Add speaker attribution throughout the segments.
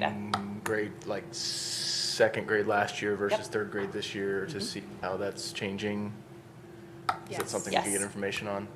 Speaker 1: Yeah.
Speaker 2: Mm, grade, like second grade last year versus
Speaker 1: Yep. Mm-hmm.
Speaker 2: third grade this year to see how that's changing? Is that
Speaker 3: Yes.
Speaker 2: something we can
Speaker 1: Yes.
Speaker 2: get information on?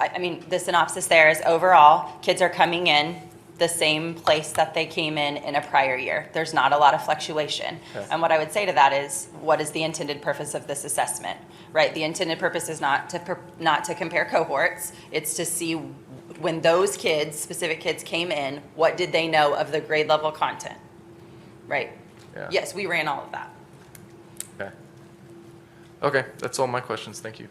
Speaker 1: I, I mean, the synopsis there is overall, kids are coming in the same place that they came in in a prior year. There's not a lot of fluctuation.
Speaker 2: Okay.
Speaker 1: And what I would say to that is, what is the intended purpose of this assessment? Right? The intended purpose is not to, per- not to compare cohorts. It's to see when those kids, specific kids came in, what did they know of the grade level content? Right?
Speaker 2: Yeah.
Speaker 1: Yes, we ran all of that.
Speaker 2: Okay. Okay, that's all my questions. Thank you.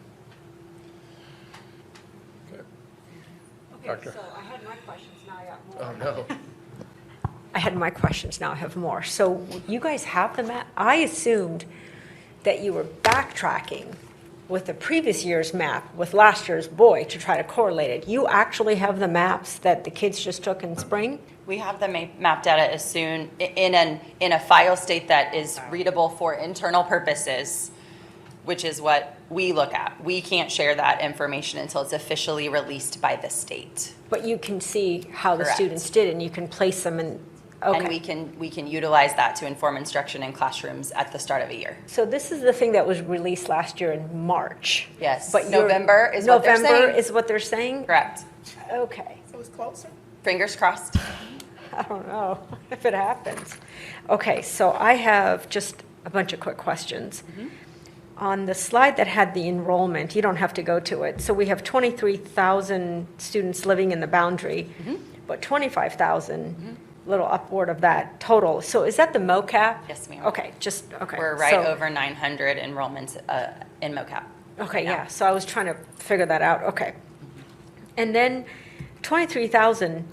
Speaker 3: Okay, so I had my questions, now I got
Speaker 2: Oh,
Speaker 3: more.
Speaker 2: no.
Speaker 3: I had my questions, now I have more. So you guys have the map? I assumed that you were backtracking with the previous year's map with last year's boy to try to correlate it. You actually have the maps that the kids just took in spring?
Speaker 1: We have the ma- map data as soon, i- in an, in a file state that is readable for internal purposes, which is what we look at. We can't share that information until it's officially released by the state.
Speaker 3: But you can see how the
Speaker 1: Correct.
Speaker 3: students did and you can place them in,
Speaker 1: And we
Speaker 3: okay.
Speaker 1: can, we can utilize that to inform instruction in classrooms at the start of a year.
Speaker 3: So this is the thing that was released last year in March.
Speaker 1: Yes,
Speaker 3: But you're-
Speaker 1: November is what they're
Speaker 3: November
Speaker 1: saying.
Speaker 3: is what they're saying?
Speaker 1: Correct.
Speaker 3: Okay.
Speaker 4: It was closer.
Speaker 1: Fingers crossed.
Speaker 3: I don't know if it happens. Okay, so I have just a bunch of quick questions.
Speaker 1: Mm-hmm.
Speaker 3: On the slide that had the enrollment, you don't have to go to it. So we have 23,000 students living in the boundary,
Speaker 1: Mm-hmm.
Speaker 3: but 25,000, little upward of that total. So is that the MOCAP?
Speaker 1: Yes, ma'am.
Speaker 3: Okay, just, okay.
Speaker 1: We're
Speaker 3: so-
Speaker 1: right over 900 enrollments uh, in MOCAP.
Speaker 3: Okay, yeah, so I was trying to figure that out, okay. And then twenty-three thousand,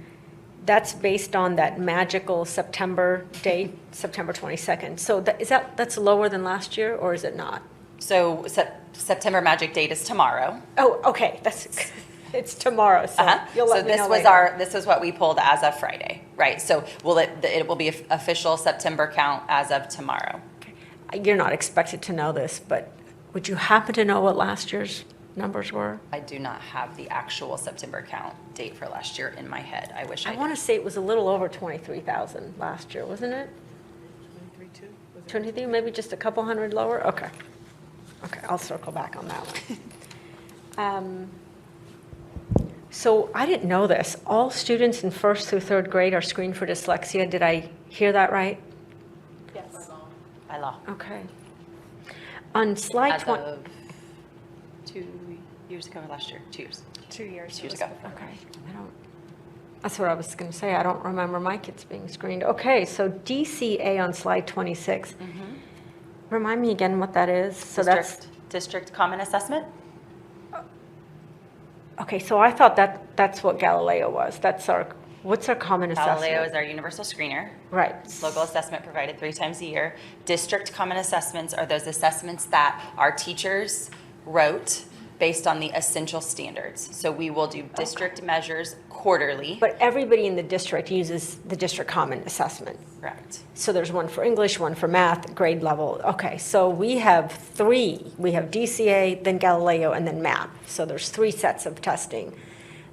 Speaker 3: that's based on that magical September date, September twenty-second. So that, is that, that's lower than last year, or is it not?
Speaker 1: So Sep- September Magic Date is tomorrow.
Speaker 3: Oh, okay, that's, it's tomorrow, so
Speaker 1: Uh-huh.
Speaker 3: you'll
Speaker 1: So
Speaker 3: let me
Speaker 1: this
Speaker 3: know
Speaker 1: was
Speaker 3: later.
Speaker 1: our, this is what we pulled as of Friday, right? So will it, it will be f- official September count as of tomorrow.
Speaker 3: You're not expected to know this, but would you happen to know what last year's numbers were?
Speaker 1: I do not have the actual September count date for last year in my head. I wish I
Speaker 3: I
Speaker 1: did.
Speaker 3: want to say it was a little over twenty-three thousand last year, wasn't it?
Speaker 4: Three, two. Was it-
Speaker 3: 23, maybe just a couple hundred lower? Okay. Okay, I'll circle back on that one. Um, So I didn't know this. All students in first through third grade are screened for dyslexia. Did I hear that right?
Speaker 1: By law.
Speaker 3: Okay. On slide
Speaker 1: As
Speaker 3: 20.
Speaker 1: of two years ago or last year, two years.
Speaker 5: Two years.
Speaker 1: Two years ago.
Speaker 3: Okay. I don't. That's what I was going to say. I don't remember my kids being screened. Okay, so DCA on slide 26. Remind me again what that is? So that's.
Speaker 1: Mm-hmm. District- District Common Assessment?
Speaker 3: Okay, so I thought that, that's what Galileo was. That's our, what's our common assessment?
Speaker 1: Galileo is our universal screener.
Speaker 3: Right.
Speaker 1: Local assessment provided three times a year. District common assessments are those assessments that our teachers wrote based on the essential standards. So we will do district measures quarterly.
Speaker 3: But everybody in the district uses the district common assessment.
Speaker 1: Correct.
Speaker 3: So there's one for English, one for math, grade level. Okay, so we have three. We have DCA, then Galileo, and then MAP. So there's three sets of testing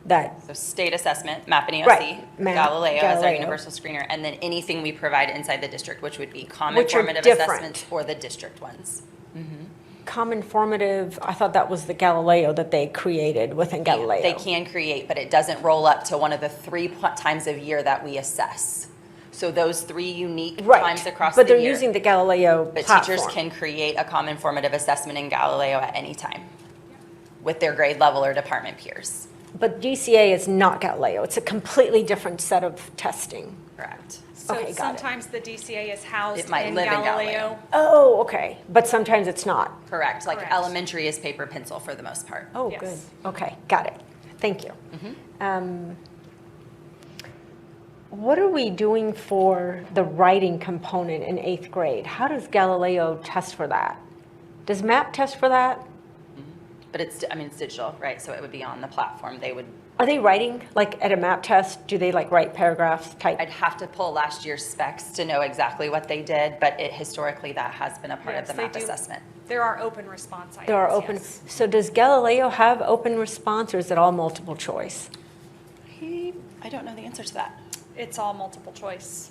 Speaker 3: that,
Speaker 1: So state assessment, MAP and
Speaker 3: Right,
Speaker 1: EOC,
Speaker 3: MAP,
Speaker 1: Galileo as our
Speaker 3: Galileo.
Speaker 1: universal screener, and then anything we provide inside the district, which would be common
Speaker 3: Which are
Speaker 1: formative
Speaker 3: different.
Speaker 1: assessments or the district ones.
Speaker 3: common formative, I thought that was the Galileo that they created within Galileo.
Speaker 1: They can create, but it doesn't roll up to one of the three pl- times of year that we assess. So those three unique
Speaker 3: Right.
Speaker 1: times across the year.
Speaker 3: But they're using the Galileo
Speaker 1: But
Speaker 3: platform.
Speaker 1: teachers can create a common formative assessment in Galileo at any time with their grade level or department peers.
Speaker 3: But DCA is not Galileo. It's a completely different set of testing.
Speaker 1: Correct.
Speaker 3: Okay, got
Speaker 5: So
Speaker 3: it.
Speaker 5: sometimes the DCA is housed
Speaker 1: It
Speaker 5: in
Speaker 1: might live in
Speaker 5: Galileo.
Speaker 3: Oh, okay. But sometimes it's not.
Speaker 1: Correct. Like
Speaker 5: Correct.
Speaker 1: elementary is paper pencil for the most part.
Speaker 3: Oh, good.
Speaker 5: Yes.
Speaker 3: Okay, got it. Thank you.
Speaker 1: Mm-hmm.
Speaker 3: Um, What are we doing for the writing component in eighth grade? How does Galileo test for that? Does MAP test for that?
Speaker 1: But it's, I mean, it's digital, right? So it would be on the platform. They would,
Speaker 3: Are they writing, like at a MAP test, do they like write paragraphs, type?
Speaker 1: I'd have to pull last year's specs to know exactly what they did, but it, historically, that has been a part of
Speaker 5: Yes,
Speaker 1: the
Speaker 5: they
Speaker 1: MAP
Speaker 5: do.
Speaker 1: assessment.
Speaker 5: There are open response items.
Speaker 3: There are open,
Speaker 5: yes.
Speaker 3: so does Galileo have open response or is it all multiple choice?
Speaker 1: I don't know the answer to that.
Speaker 5: it's all multiple choice.